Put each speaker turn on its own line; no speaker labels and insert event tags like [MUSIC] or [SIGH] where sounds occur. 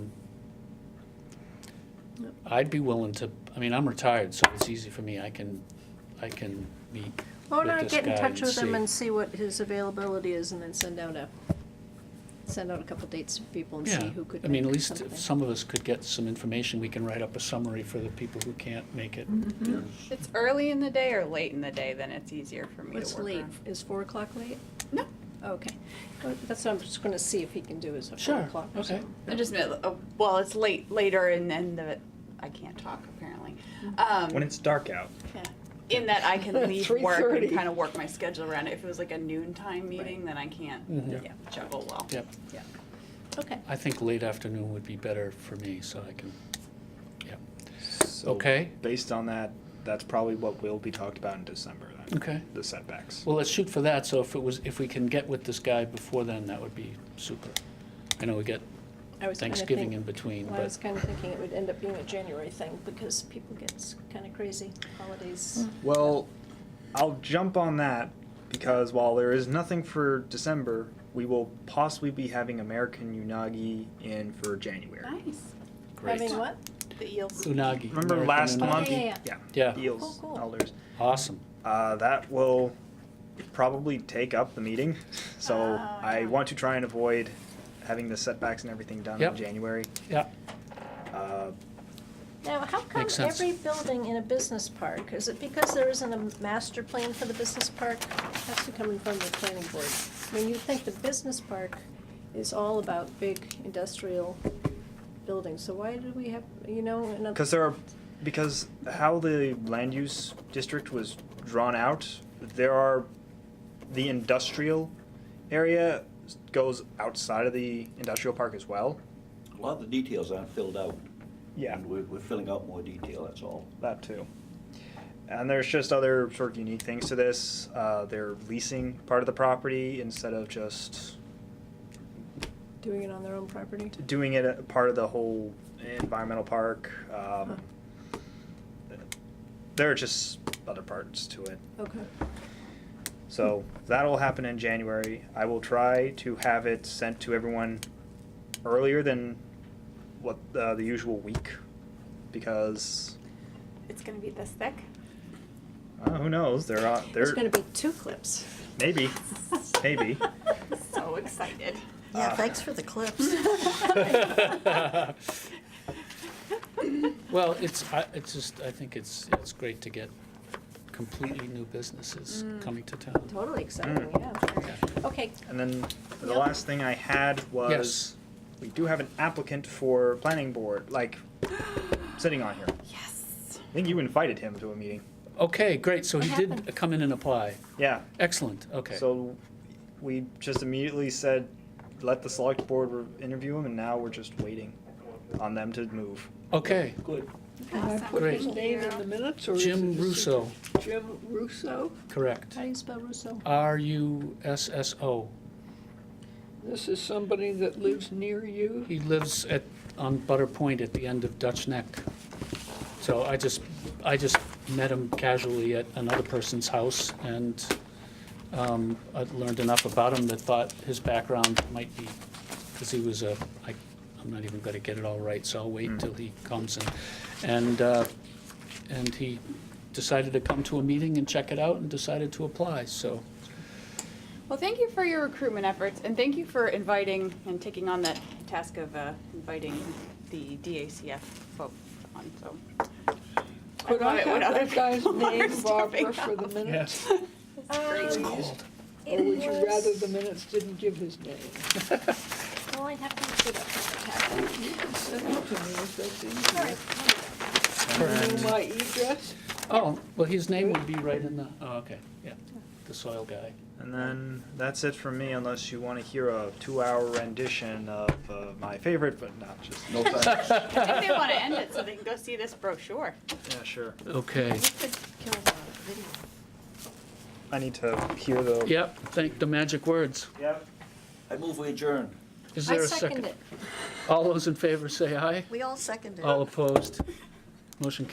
I'd be willing to, I mean, I'm retired, so it's easy for me, I can, I can meet
Why
with
don't I
this
get in
guy and
touch with him
see.
and see what his availability is, and then send out a, send out a couple dates to people and see
Yeah,
who could
I mean, at
make
least if
something.
some of us could get some information, we can write up a summary for the people who can't make it.
Mm-hmm.
If it's early in the day or late in the day, then it's easier for me
What's
to work
late?
around.
Is four o'clock late?
No,
Okay. Well, That's what I'm just gonna see if he can do is a four
Sure,
o'clock or
okay.
something.
I just meant, uh, well, it's late later, and then the I can't talk apparently. Um,
When it's dark out.
Yeah. In that I [LAUGHS] can leave work
3:30.
and kind of work my schedule around it. If it was like a noontime meeting, then I can't
Mhm.
yeah, juggle well.
Yep,
Yeah.
Okay.
I think late afternoon would be better for me, so I can, yeah,
So
Okay.
Based on that, that's probably what will be talked about in December then.
okay.
The setbacks.
Well, let's shoot for that, so if it was, if we can get with this guy before then, that would be super. I know we get
I was kinda
Thanksgiving
think-
in between,
Well, I was
but,
kinda thinking it would end up being a January thing, because people get s- kinda crazy holidays.
Well, I'll jump on that because while there is nothing for December, we will possibly be having American Unagi in for January.
Nice.
great.
Having what?
The eels.
Unagi.
Remember
American
last
unagi.
month?
Yeah, yeah,
Yeah,
Eels,
Cool, cool.
elders.
awesome.
Uh, that will probably take up the meeting. [LAUGHS] So
Oh,
Ah,
I
yeah.
want to try and avoid having the setbacks and everything done
Yep.
in January.
Yeah,
Uh,
Now, how come
Makes sense.
every building in a business park, is it because there isn't a master plan for the business park? Has to come in front of the planning board. I mean, you think the business park is all about big industrial buildings, so why do we have, you know, another?
Because there are, because how the land use district was drawn out, there are, the industrial area goes outside of the industrial park as well.
A lot of the details aren't filled out.
Yeah.
And we're, we're filling out more detail, that's all.
That too. And there's just other sort of unique things to this. Uh, they're leasing part of the property instead of just
Doing it on their own property?
doing it a part of the whole environmental park. Um, There are just other parts to it.
Okay.
So that'll happen in January. I will try to have it sent to everyone earlier than what uh, the usual week, because
It's gonna be this thick.
uh, who knows? They're on. They're
There's gonna be two clips.
maybe, maybe. Uh,
So excited.
Yeah,
thanks for the clips.
Well, it's, I, it's just, I think it's, it's great to get completely new businesses
Mm.
coming to town.
Totally exciting, yeah. Okay,
And then the
Yep.
last thing I had was
Yes.
we do have an applicant for planning board, like sitting on here.
Yes.
I think you invited him to a meeting.
Okay, great, so he
What
did
happened?
come in and apply.
Yeah.
Excellent, okay.
So we just immediately said, let the select board re- interview him, and now we're just waiting on them to move.
Okay,
Good.
Can I put his
Great.
name in the minutes or? is
Jim
it a
Russo,
secret? Jim Russo.
correct.
how do you spell Russo?
R U S S O.
This is somebody that lives near you.
He lives at, on Butter Point at the end of Dutch Neck. So I just, I just met him casually at another person's house and um, I learned enough about him that thought his background might be, because he was a, I, I'm not even going to get it all right, so I'll wait till he comes and, and, uh, and he decided to come to a meeting and check it out and decided to apply, so.
Well, thank you for your recruitment efforts, and thank you for inviting and taking on that task of uh, inviting the DACF folk on. So
Could
love
I
it when
have
other
[LAUGHS]
that guy's
people are
name, Barbara,
stepping
for the minutes?
It's
cold. Or would you rather the minutes didn't give his
[LAUGHS]
name?
Well, I have to look it up in the packet.
You can send it to me if that's
All right.
easier. You
Correct.
know My address?
Oh, well, his name would be right in the, oh, okay, yeah, the soil guy.
And then that's it from me, unless you want to hear a two-hour rendition of uh, my favorite, but not just.
No thanks.
I think they want to end it so they can go see this brochure.
Yeah, sure.
Okay.
You could kill that video.
I need to hear the.
Yep, thank the magic words.
Yep.
I move we adjourn.
Is
I
there a
second
second?
it.
All those in favor say aye.
We all seconded.
All opposed? Motion